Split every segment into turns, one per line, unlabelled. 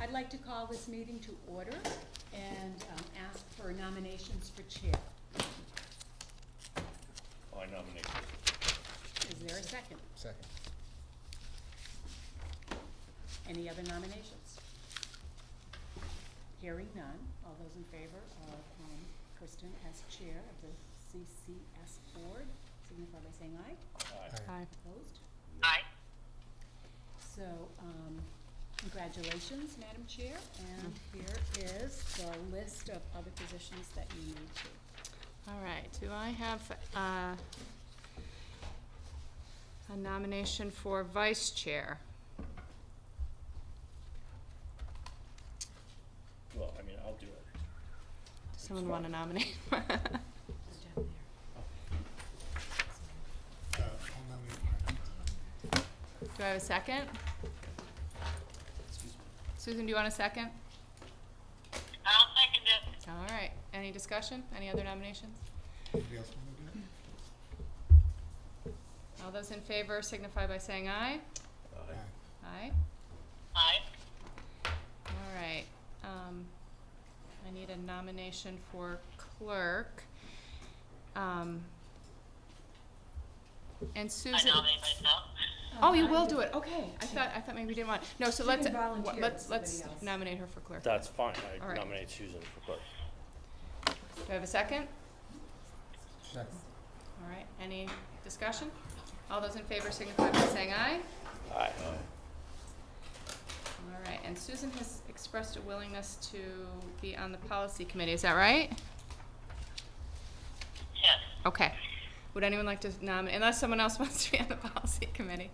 I'd like to call this meeting to order and um, ask for nominations for chair.
I nominate
Is there a second?
Second.
Any other nominations? Hearing none, all those in favor of um, Kristen as chair of the CCS board, signify by saying aye.
aye.
Aye.
Opposed? Aye. So, um, congratulations, Madam Chair, and here is the list of other positions that you need to.
All right, do I have uh, a nomination for vice chair?
Well, I mean, I'll do it.
Does someone want to
fine.
nominate?
Uh,
Do I have a second? Susan, do you want a second?
I'll second it.
All right, any discussion? Any other nominations?
Anybody else want to do
All those in favor signify by saying aye.
it? Aye.
Aye.
Aye.
All right, um, I need a nomination for clerk. Um, and
I
Susan.
nominate myself.
Oh, you will do it, okay, I thought, I thought maybe we didn't want, no, so
She
let's,
can volunteer if
let's, let's
somebody else-
nominate her for clerk. Do
That's fine,
All
I
right.
nominate Susan for clerk.
I have a second?
Second.
All right, any discussion? All those in favor signify by saying aye.
Aye.
All right, and Susan has expressed a willingness to be on the policy committee, is that right?
Yes.
Okay. Would anyone like to nominate, unless someone else wants to be on the policy committee?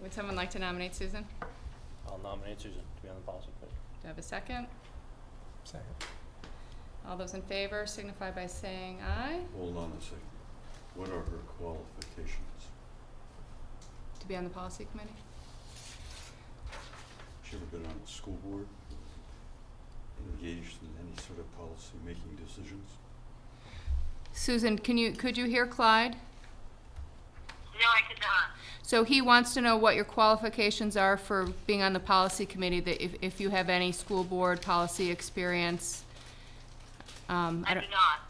Would someone like to nominate Susan? Do
I'll nominate Susan to be on the policy committee.
I have a second?
Second.
All those in favor signify by saying aye.
Hold on a second. What are her qualifications?
To be on the policy committee?
She ever been on the school board? Engaged in any sort of policy-making decisions?
Susan, can you, could you hear Clyde?
No, I could not.
So he wants to know what your qualifications are for being on the policy committee, that if, if you have any school board policy experience. Um,
I
I
do
don't,
not.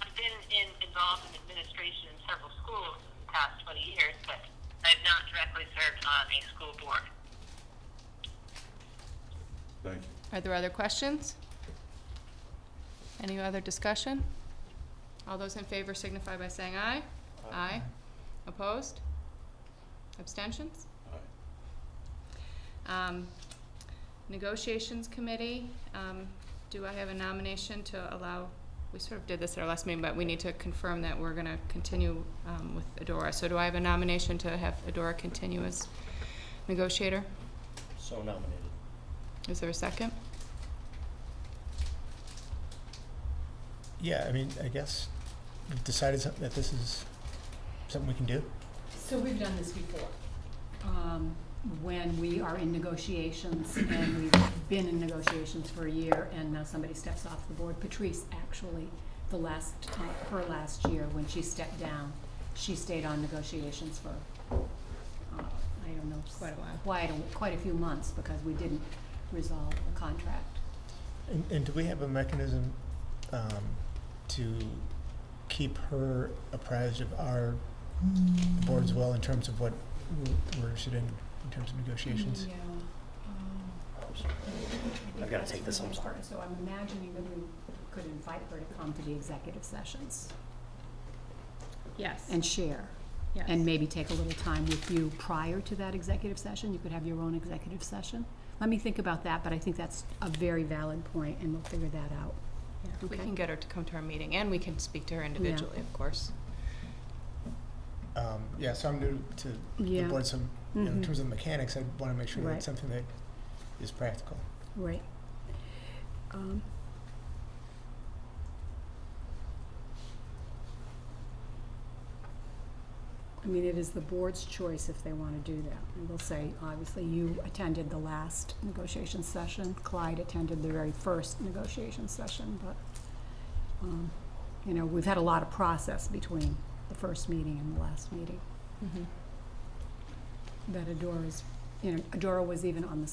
I've been in, involved in administration in several schools in the past 20 years, but I've not directly served on a school board.
Thank you.
are there other questions? Any other discussion? All those in favor signify by saying aye. Aye. Opposed? Abstentions?
Aye.
Um, Negotiations Committee, um, do I have a nomination to allow, we sort of did this at our last meeting, but we need to confirm that we're gonna continue, um, with Adora. So do I have a nomination to have Adora continue as negotiator?
So nominated.
Is there a second?
Yeah, I mean, I guess we've decided some- that this is something we can do.
So we've done this before. Um, when we are in negotiations and we've been in negotiations for a year and now somebody steps off the board. Patrice, actually, the last, uh, her last year, when she stepped down, she stayed on negotiations for, uh, I don't know.
Quite a while.
Quite a, quite a few months because we didn't resolve the contract.
And, and do we have a mechanism um, to keep her apprised of our board as well in terms of what we're- we're interested in, in terms of negotiations?
Yeah. um,
I'm sorry. I've gotta take this, I'm sorry.
So I'm imagining that we could invite her to come to the executive sessions
Yes.
and share.
Yes.
and maybe take a little time with you prior to that executive session. You could have your own executive session. Let me think about that, but I think that's a very valid point, and we'll figure that out.
We
okay.
can get her to come to our meeting, and we can speak to her individually, of course.
Um, yeah, so I'm new to
Yeah.
the board, so you know, in
Mhm.
terms of mechanics, I want to make sure that
Right.
it's something that is practical.
Right. Um, I mean, it is the board's choice if they want to do that. And we'll say, obviously, you attended the last negotiation session. Clyde attended the very first negotiation session, but, um, you know, we've had a lot of process between the first meeting and the last meeting.
Mhm.
That Adora's, you know, Adora was even on the